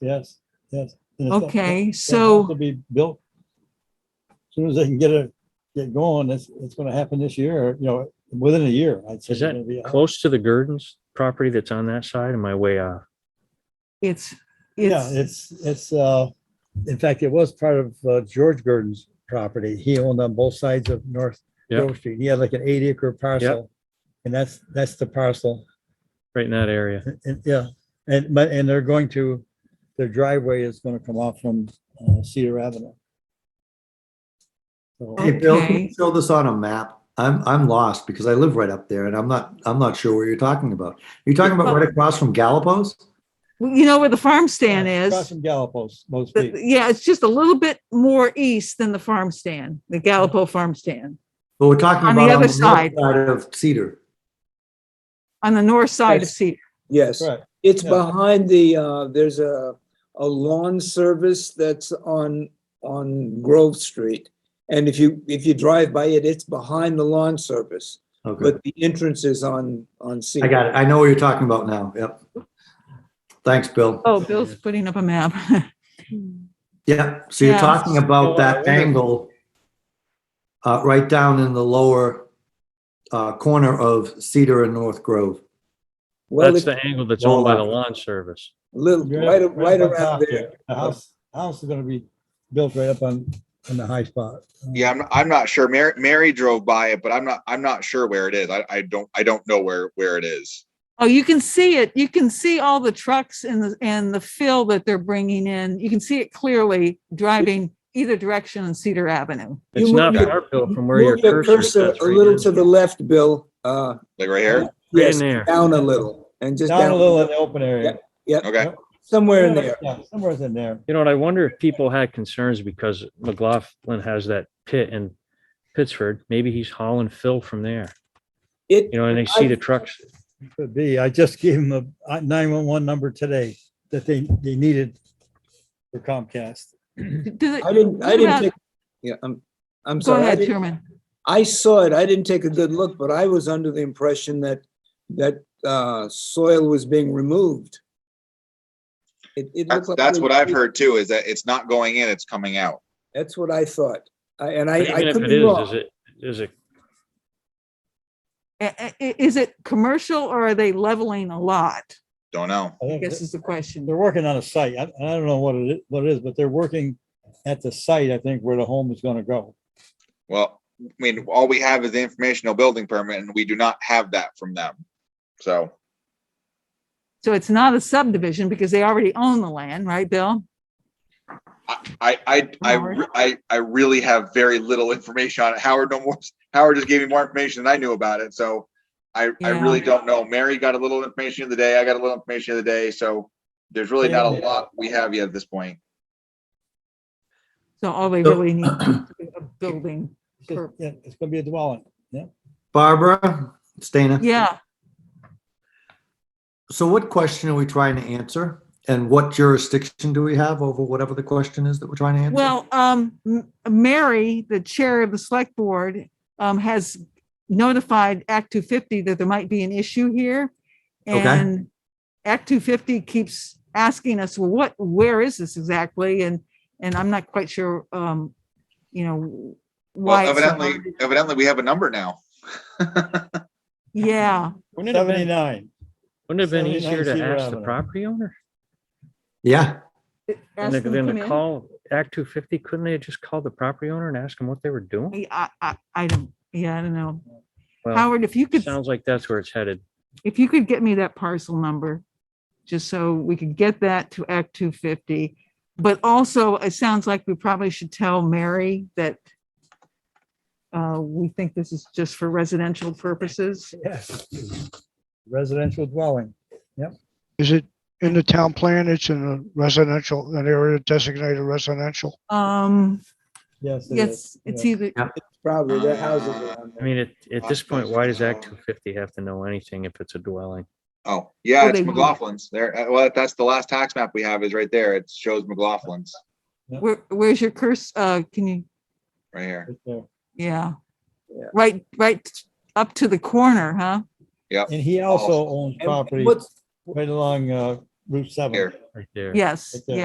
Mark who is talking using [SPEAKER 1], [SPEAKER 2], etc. [SPEAKER 1] Yes, yes. And it's up- it'll
[SPEAKER 2] Okay,
[SPEAKER 1] have To
[SPEAKER 2] so,
[SPEAKER 1] be built. As Soon as they can get it, get going, it's, it's gonna happen this year, or, you know, within a year, I'd say. it's
[SPEAKER 3] Is that
[SPEAKER 1] gonna be out.
[SPEAKER 3] close to the Gurdon's property that's on that side? Am I way uh, off?
[SPEAKER 2] it's,
[SPEAKER 1] Yeah,
[SPEAKER 2] it's,
[SPEAKER 1] it's, it's, uh, in fact, it was part of uh, George Gurdon's property. He owned on both sides of North
[SPEAKER 3] Yeah.
[SPEAKER 1] Grove Street. He had like an eight acre parcel. And that's, that's the parcel.
[SPEAKER 3] right in that area?
[SPEAKER 1] And- and- Yeah, and, but, and they're going to, their driveway is gonna come off from uh, Cedar Avenue. So-
[SPEAKER 4] Hey, Bill, can you
[SPEAKER 2] Okay.
[SPEAKER 4] show this on a map? I'm, I'm lost because I live right up there and I'm not, I'm not sure what you're talking about. You're talking about right across from Galapos?
[SPEAKER 2] you know where the farm stand
[SPEAKER 1] Yeah, Across
[SPEAKER 2] is?
[SPEAKER 1] from Galapos, most
[SPEAKER 2] But,
[SPEAKER 1] people.
[SPEAKER 2] Yeah, it's just a little bit more east than the farm stand, the Gallipo farm stand.
[SPEAKER 4] But we're talking
[SPEAKER 2] On the
[SPEAKER 4] about
[SPEAKER 2] other
[SPEAKER 4] on the north
[SPEAKER 2] side.
[SPEAKER 4] side of Cedar.
[SPEAKER 2] On the north side of
[SPEAKER 5] Yes.
[SPEAKER 2] Cedar.
[SPEAKER 5] Yes,
[SPEAKER 1] Correct.
[SPEAKER 5] it's
[SPEAKER 1] yeah.
[SPEAKER 5] behind the, uh, there's a, a lawn service that's on, on Grove Street. And if you, if you drive by it, it's behind the lawn service,
[SPEAKER 4] Okay,
[SPEAKER 5] but the entrance is on, on Cedar.
[SPEAKER 4] I got it. I know what you're talking about now. Yep. Thanks, Bill.
[SPEAKER 2] Oh, Bill's putting up a map.
[SPEAKER 4] Yeah, so you're
[SPEAKER 2] Yeah.
[SPEAKER 4] talking
[SPEAKER 3] So, uh,
[SPEAKER 4] about that
[SPEAKER 3] wonder-
[SPEAKER 4] angle uh, right down in the lower uh, corner of Cedar and North Grove.
[SPEAKER 5] Well,
[SPEAKER 3] That's
[SPEAKER 5] it's
[SPEAKER 3] the angle that's owned by the
[SPEAKER 4] Well,
[SPEAKER 3] lawn service.
[SPEAKER 5] little,
[SPEAKER 1] You're
[SPEAKER 5] right,
[SPEAKER 1] up-
[SPEAKER 5] right
[SPEAKER 1] up on
[SPEAKER 5] around
[SPEAKER 1] top
[SPEAKER 5] there.
[SPEAKER 1] The house, house is gonna be built right up on, on the high spot.
[SPEAKER 6] Yeah, I'm, I'm not sure. Mary, Mary drove by it, but I'm not, I'm not sure where it is. I, I don't, I don't know where, where it is.
[SPEAKER 2] Oh, you can see it. You can see all the trucks and the, and the fill that they're bringing in. You can see it clearly driving either direction on Cedar Avenue.
[SPEAKER 3] It's
[SPEAKER 5] move
[SPEAKER 3] not
[SPEAKER 5] your-
[SPEAKER 3] far, Bill, from where your
[SPEAKER 5] Move your
[SPEAKER 3] cursor is.
[SPEAKER 5] cursor a little to the left, Bill, uh,
[SPEAKER 6] Like right here?
[SPEAKER 3] Right in
[SPEAKER 5] yes,
[SPEAKER 3] there.
[SPEAKER 5] down a little and just
[SPEAKER 1] Down a little in
[SPEAKER 5] down,
[SPEAKER 1] the open area.
[SPEAKER 6] Okay.
[SPEAKER 5] somewhere in there.
[SPEAKER 1] Yeah, somewhere's in there.
[SPEAKER 3] You know, and I wonder if people had concerns because McLaughlin has that pit in Pittsford. Maybe he's hauling fill from there,
[SPEAKER 5] It,
[SPEAKER 3] you know, and they see the trucks.
[SPEAKER 1] Could be. I just gave them a nine-one-one number today that they, they needed for Comcast.
[SPEAKER 2] Do they-
[SPEAKER 5] I didn't, I
[SPEAKER 2] What
[SPEAKER 5] didn't
[SPEAKER 2] about-
[SPEAKER 5] take, yeah, I'm, I'm
[SPEAKER 2] Go
[SPEAKER 5] sorry. I
[SPEAKER 2] ahead,
[SPEAKER 5] didn't-
[SPEAKER 2] Chairman.
[SPEAKER 5] I saw it. I didn't take a good look, but I was under the impression that, that, uh, soil was being removed. It, it looked
[SPEAKER 6] That's,
[SPEAKER 5] like.
[SPEAKER 6] that's what I've heard too, is that it's not going in, it's coming out.
[SPEAKER 5] That's what I thought. I- And I,
[SPEAKER 3] But
[SPEAKER 5] I
[SPEAKER 3] Even if
[SPEAKER 5] could
[SPEAKER 3] it
[SPEAKER 5] be
[SPEAKER 3] is, is
[SPEAKER 5] wrong.
[SPEAKER 3] it, is it,
[SPEAKER 2] I- I- i- Is it commercial or are they leveling a lot?
[SPEAKER 6] Don't know.
[SPEAKER 1] I
[SPEAKER 2] I
[SPEAKER 1] think
[SPEAKER 2] guess is the question.
[SPEAKER 1] They're working on a site. I, I don't know what it, is- what it is, but they're working at the site, I think, where the home is gonna go.
[SPEAKER 6] Well, I mean, all we have is the informational building permit and we do not have that from them. So,
[SPEAKER 2] So it's not a subdivision because they already own the land, right, Bill?
[SPEAKER 6] I, I, I, re- I, I really have very little information on it. Howard no more, Howard just gave me more information than I knew about it, so I, I
[SPEAKER 2] Yeah.
[SPEAKER 6] really don't know. Mary got a little information of the day, I got a little information of the day, so there's really not a lot we have yet at this point.
[SPEAKER 2] So all they
[SPEAKER 4] So-
[SPEAKER 2] really need is a building.
[SPEAKER 1] It's just-
[SPEAKER 2] Sure.
[SPEAKER 1] yeah, It's gonna be a dwelling.
[SPEAKER 4] Barbara, Stana?
[SPEAKER 2] Yeah,
[SPEAKER 4] So what question are we trying to answer? And what jurisdiction do we have over whatever the question is that we're trying to answer?
[SPEAKER 2] well, um, M- Mary, the chair of the select board, um, has notified Act two fifty that there might be an issue here.
[SPEAKER 4] Okay.
[SPEAKER 2] And Act two fifty keeps asking us, well, what, where is this exactly? And, and I'm not quite sure, um, you know, why.
[SPEAKER 6] Well,
[SPEAKER 2] it's not
[SPEAKER 6] evidently,
[SPEAKER 2] on-
[SPEAKER 6] evidently, we have a number now.
[SPEAKER 2] Yeah,
[SPEAKER 3] wouldn't it have been,
[SPEAKER 1] Seventy-nine.
[SPEAKER 3] wouldn't it have been
[SPEAKER 1] 79
[SPEAKER 3] easier to
[SPEAKER 1] Cedar
[SPEAKER 3] ask the
[SPEAKER 1] Avenue.
[SPEAKER 3] property owner?
[SPEAKER 4] Yeah,
[SPEAKER 2] ask
[SPEAKER 3] And
[SPEAKER 2] them to
[SPEAKER 3] then
[SPEAKER 2] come
[SPEAKER 3] the
[SPEAKER 2] in.
[SPEAKER 3] call, Act two fifty, couldn't they have just called the property owner and asked him what they were doing?
[SPEAKER 2] I, I, I- I don't, yeah, I don't know.
[SPEAKER 3] Well,
[SPEAKER 2] Howard, if you could,
[SPEAKER 3] sounds like that's where it's headed.
[SPEAKER 2] if you could get me that parcel number, just so we could get that to Act two fifty. But also, it sounds like we probably should tell Mary that uh, we think this is just for residential purposes.
[SPEAKER 1] Yes. Residential dwelling.
[SPEAKER 7] Is it in the town plan? It's in a residential, an area designated residential?
[SPEAKER 2] Um,
[SPEAKER 1] Yes. it is.
[SPEAKER 2] yes, it's
[SPEAKER 1] Yeah.
[SPEAKER 2] either,
[SPEAKER 5] Probably their houses
[SPEAKER 3] I
[SPEAKER 5] around there.
[SPEAKER 3] mean, at, at this point,
[SPEAKER 6] Occupational
[SPEAKER 3] why does Act two
[SPEAKER 6] zone.
[SPEAKER 3] fifty have to know anything if it's a dwelling?
[SPEAKER 6] Oh, yeah,
[SPEAKER 2] Oh,
[SPEAKER 6] it's
[SPEAKER 2] they will.
[SPEAKER 6] McLaughlin's there. uh, Well, that's the last tax map we have is right there. It shows McLaughlin's
[SPEAKER 2] where, where's your curse? Uh, can you,
[SPEAKER 6] right here.
[SPEAKER 1] Right there.
[SPEAKER 2] yeah.
[SPEAKER 5] Yeah.
[SPEAKER 2] Right, right up to the corner, huh?
[SPEAKER 1] And he also owns
[SPEAKER 5] And
[SPEAKER 1] property
[SPEAKER 5] what's-
[SPEAKER 1] right along, uh,
[SPEAKER 2] Route seven.
[SPEAKER 8] Here.
[SPEAKER 9] right there.
[SPEAKER 1] Yes,
[SPEAKER 2] Okay.